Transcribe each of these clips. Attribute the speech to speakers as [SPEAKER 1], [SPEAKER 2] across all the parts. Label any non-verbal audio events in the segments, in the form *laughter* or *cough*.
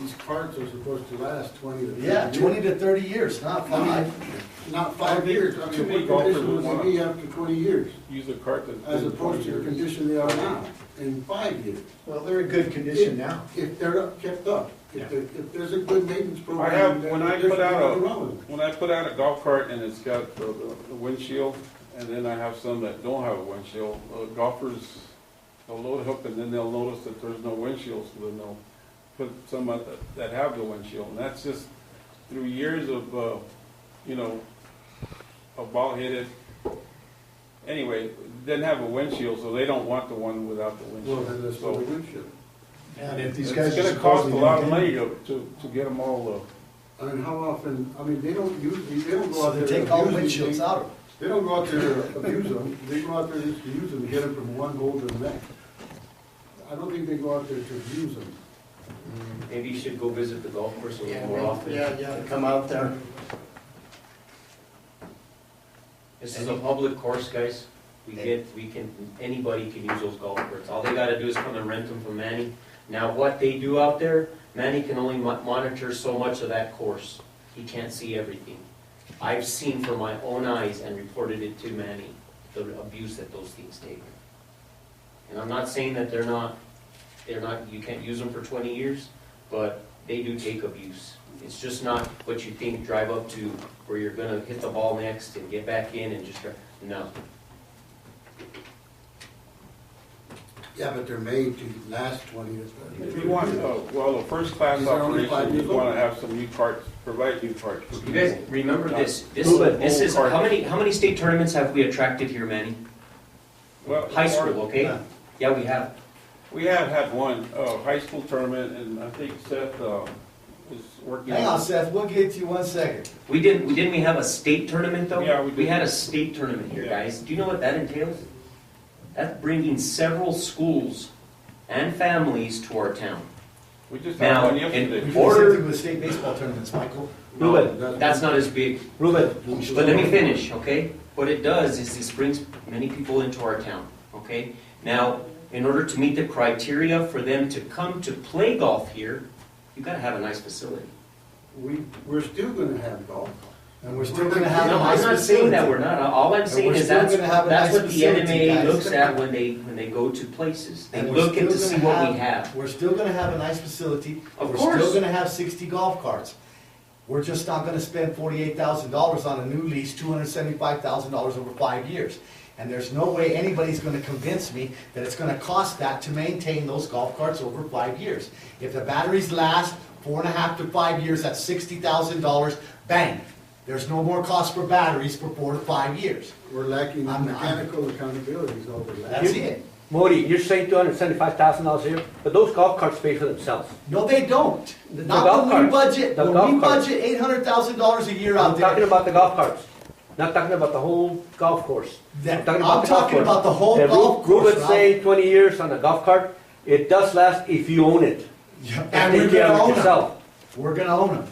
[SPEAKER 1] These carts are supposed to last twenty to thirty
[SPEAKER 2] Yeah,
[SPEAKER 1] years.
[SPEAKER 2] twenty to thirty years, not
[SPEAKER 1] I mean,
[SPEAKER 2] five.
[SPEAKER 1] not five years, I
[SPEAKER 3] Too
[SPEAKER 1] mean,
[SPEAKER 3] many
[SPEAKER 1] what
[SPEAKER 3] golfers
[SPEAKER 1] condition would
[SPEAKER 3] would want
[SPEAKER 1] they be after twenty years?
[SPEAKER 3] Use a cart that's.
[SPEAKER 1] As
[SPEAKER 3] been
[SPEAKER 1] opposed to the
[SPEAKER 3] 20 years.
[SPEAKER 1] condition they are now, in five years.
[SPEAKER 4] Well, they're in good condition now.
[SPEAKER 1] If they're up- kept up, if, there- if there's a good maintenance program.
[SPEAKER 3] I have, when I put out a,
[SPEAKER 1] there's nothing wrong with it.
[SPEAKER 3] when I put out a golf cart and it's got the, the- the windshield, and then I have some that don't have a windshield, uh, golfers, they'll load it up and then they'll notice that there's no windshield, so then they'll put some out that, that have the windshield, and that's just through years of, uh, you know, a ball hit it. Anyway, didn't have a windshield, so they don't want the one without the
[SPEAKER 1] Well, then
[SPEAKER 3] windshield,
[SPEAKER 1] that's what we
[SPEAKER 3] so.
[SPEAKER 1] would should.
[SPEAKER 4] And if
[SPEAKER 3] It's
[SPEAKER 4] these guys. are
[SPEAKER 3] gonna cost a
[SPEAKER 4] supposedly
[SPEAKER 3] lot of
[SPEAKER 4] gonna-
[SPEAKER 3] money to, to, to get them all, uh,
[SPEAKER 1] I mean, how often, I mean, they don't use, these- they don't go
[SPEAKER 2] So
[SPEAKER 1] out
[SPEAKER 2] they
[SPEAKER 1] there.
[SPEAKER 2] take all
[SPEAKER 1] abuse these
[SPEAKER 2] windshields
[SPEAKER 1] things.
[SPEAKER 2] out of them.
[SPEAKER 1] They don't go out there *laughs* to abuse them, they go out there just to use them, and get them from one hole to the next. I don't think they go out there to abuse them.
[SPEAKER 5] Maybe you should go visit the golf course a
[SPEAKER 4] Yeah,
[SPEAKER 5] little more often.
[SPEAKER 4] yeah, yeah, come out there.
[SPEAKER 5] This is a public course, guys. We get, we can, anybody can use those golf carts. All they gotta do is come and rent them from Manny. Now, what they do out there, Manny can only mo- monitor so much of that course. He can't see everything. I've seen from my own eyes and reported it to Manny, the abuse that those things take. And I'm not saying that they're not, they're not, you can't use them for twenty years, but they do take abuse. It's just not what you think, drive up to where you're gonna hit the ball next and get back in and just, try- no.
[SPEAKER 1] Yeah, but they're made to last twenty years.
[SPEAKER 3] If you want, uh, well, the first class
[SPEAKER 1] Is there only five
[SPEAKER 3] operation, you
[SPEAKER 1] people?
[SPEAKER 3] want to have some new carts, provide new carts for
[SPEAKER 5] You guys,
[SPEAKER 3] people.
[SPEAKER 5] remember this, this,
[SPEAKER 3] Bullet
[SPEAKER 5] this is,
[SPEAKER 3] bowl
[SPEAKER 5] how many, how many state tournaments have we attracted here, Manny?
[SPEAKER 3] Well,
[SPEAKER 5] High school, okay?
[SPEAKER 4] Yeah.
[SPEAKER 5] Yeah, we have.
[SPEAKER 3] We have had one, uh, high school tournament, and I think Seth, uh, is working.
[SPEAKER 2] Hang on, Seth, we'll get to you one second.
[SPEAKER 5] We didn't, we didn't we have a state tournament though?
[SPEAKER 3] Yeah, we did.
[SPEAKER 5] had a state tournament here,
[SPEAKER 3] Yeah.
[SPEAKER 5] guys. Do you know what that entails? That's bringing several schools and families to our town.
[SPEAKER 3] We just had
[SPEAKER 5] Now,
[SPEAKER 3] one
[SPEAKER 2] We
[SPEAKER 5] in
[SPEAKER 2] do
[SPEAKER 3] yesterday.
[SPEAKER 2] the same
[SPEAKER 5] order,
[SPEAKER 2] thing with state baseball tournaments, Michael.
[SPEAKER 5] Ruben, that's not as big.
[SPEAKER 4] Ruben,
[SPEAKER 5] But let me finish, okay? What it does is this brings many people into our town, okay? Now, in order to meet the criteria for them to come to play golf here, you gotta have a nice facility.
[SPEAKER 1] We, we're still gonna have golf.
[SPEAKER 2] And we're still gonna have a
[SPEAKER 5] No, I'm
[SPEAKER 2] nice
[SPEAKER 5] not saying that
[SPEAKER 2] facility.
[SPEAKER 5] we're not, all I'm saying
[SPEAKER 2] we're
[SPEAKER 5] is
[SPEAKER 2] still
[SPEAKER 5] that's,
[SPEAKER 2] gonna have a
[SPEAKER 5] that's
[SPEAKER 2] nice
[SPEAKER 5] what the
[SPEAKER 2] facility,
[SPEAKER 5] NMA
[SPEAKER 2] guys.
[SPEAKER 5] looks at when they, when they go to places. They
[SPEAKER 2] And we're
[SPEAKER 5] look at to
[SPEAKER 2] still
[SPEAKER 5] see
[SPEAKER 2] gonna
[SPEAKER 5] what we have.
[SPEAKER 2] We're still gonna have a nice facility.
[SPEAKER 5] Of
[SPEAKER 2] We're
[SPEAKER 5] course.
[SPEAKER 2] still gonna have sixty golf carts. We're just not gonna spend forty-eight thousand dollars on a new lease, two hundred seventy-five thousand dollars over five years. And there's no way anybody's gonna convince me that it's gonna cost that to maintain those golf carts over five years. If the batteries last four and a half to five years, that's sixty thousand dollars, bang. There's no more cost for batteries for four to five years.
[SPEAKER 1] We're lacking
[SPEAKER 2] I'm- I'm-
[SPEAKER 1] mechanical accountability is all we're lacking.
[SPEAKER 2] That's it.
[SPEAKER 6] Modi, you're saying two hundred seventy-five thousand dollars a year, but those golf carts pay for themselves.
[SPEAKER 2] No, they don't.
[SPEAKER 6] The- the
[SPEAKER 2] Not
[SPEAKER 6] golf
[SPEAKER 2] when we
[SPEAKER 6] cart.
[SPEAKER 2] budget,
[SPEAKER 6] The
[SPEAKER 2] when
[SPEAKER 6] golf
[SPEAKER 2] we
[SPEAKER 6] cart.
[SPEAKER 2] budget eight hundred thousand dollars a year out
[SPEAKER 6] I'm talking
[SPEAKER 2] there.
[SPEAKER 6] about the golf carts, not talking about the whole golf course.
[SPEAKER 2] That- I'm
[SPEAKER 6] about the golf
[SPEAKER 2] talking
[SPEAKER 6] course.
[SPEAKER 2] about the whole
[SPEAKER 6] Ru-
[SPEAKER 2] golf course,
[SPEAKER 6] Ruben
[SPEAKER 2] Ralph.
[SPEAKER 6] say twenty years on a golf cart, it does last if you own it.
[SPEAKER 2] And we're
[SPEAKER 6] Take care of
[SPEAKER 2] gonna
[SPEAKER 6] it
[SPEAKER 2] own them.
[SPEAKER 6] yourself.
[SPEAKER 2] We're gonna own them.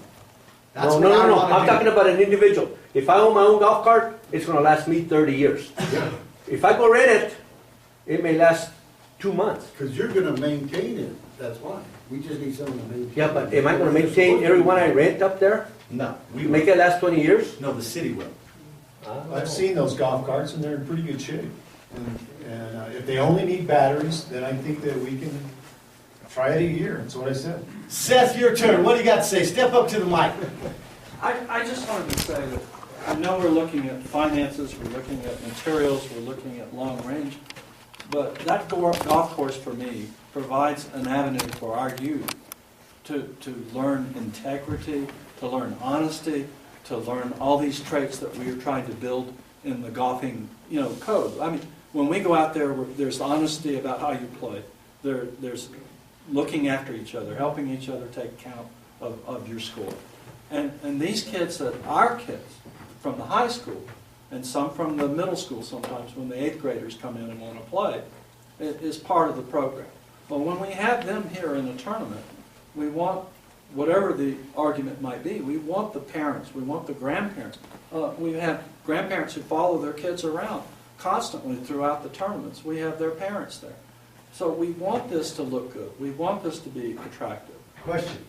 [SPEAKER 2] That's
[SPEAKER 6] No,
[SPEAKER 2] what
[SPEAKER 6] no,
[SPEAKER 2] I
[SPEAKER 6] no, no,
[SPEAKER 2] wanna
[SPEAKER 6] I'm
[SPEAKER 2] do.
[SPEAKER 6] talking about an individual. If I own my own golf cart, it's gonna last me thirty years. If I go rent it, it may last two months.
[SPEAKER 1] Because you're gonna maintain it, that's why. We just need someone to maintain.
[SPEAKER 6] Yeah, but am I gonna maintain every one I rent up there?
[SPEAKER 4] no, we,
[SPEAKER 6] Make it last twenty years?
[SPEAKER 2] No, the city will.
[SPEAKER 4] I've seen those golf carts and they're in pretty good shape. And- And uh, if they only need batteries, then I think that we can try it a year, that's what I said.
[SPEAKER 2] Seth, your turn. What do you got to say? Step up to the mic.
[SPEAKER 7] I, I just wanted to say that I know we're looking at finances, we're looking at materials, we're looking at long range, but that go- golf course for me provides an avenue for our youth to, to learn integrity, to learn honesty, to learn all these traits that we are trying to build in the golfing, you know, code. I mean, when we go out there, we're- there's honesty about how you play. There, there's looking after each other, helping each other take count of, of your score. And, and these kids that are kids from the high school, and some from the middle school sometimes when the eighth graders come in and want to play, i- is part of the program. But when we have them here in a tournament, we want, whatever the argument might be, we want the parents, we want the grandparents. Uh, we have grandparents who follow their kids around constantly throughout the tournaments. We have their parents there. So we want this to look good. We want this to be attractive.
[SPEAKER 2] Question.